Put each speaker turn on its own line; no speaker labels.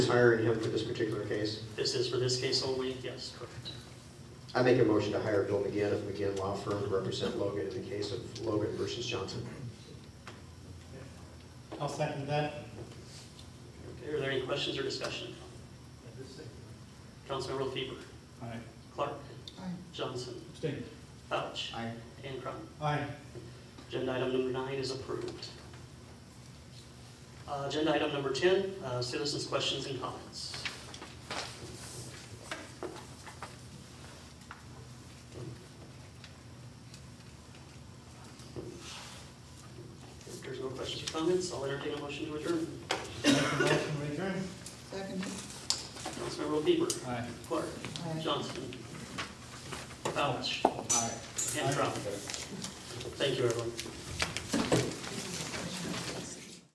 is hiring him for this particular case.
This is for this case only? Yes, correct.
I make a motion to hire Bill McGinn of McGinn Law Firm to represent Logan in the case of Logan versus Johnson.
I'll second that.
Okay, are there any questions or discussion? Councilmember LaFever,
Aye.
Clark, Johnson,
Abstain.
Fauch,
Aye.
and Crum.
Aye.
Agenda item number nine is approved. Uh, Agenda item number 10, uh, citizens' questions and comments. If there's no questions or comments, I'll entertain a motion to adjourn.
Make a motion, we adjourn.
Second.
Councilmember LaFever,
Aye.
Clark, Johnson, Fauch,
Aye.
and Crum. Thank you, everyone.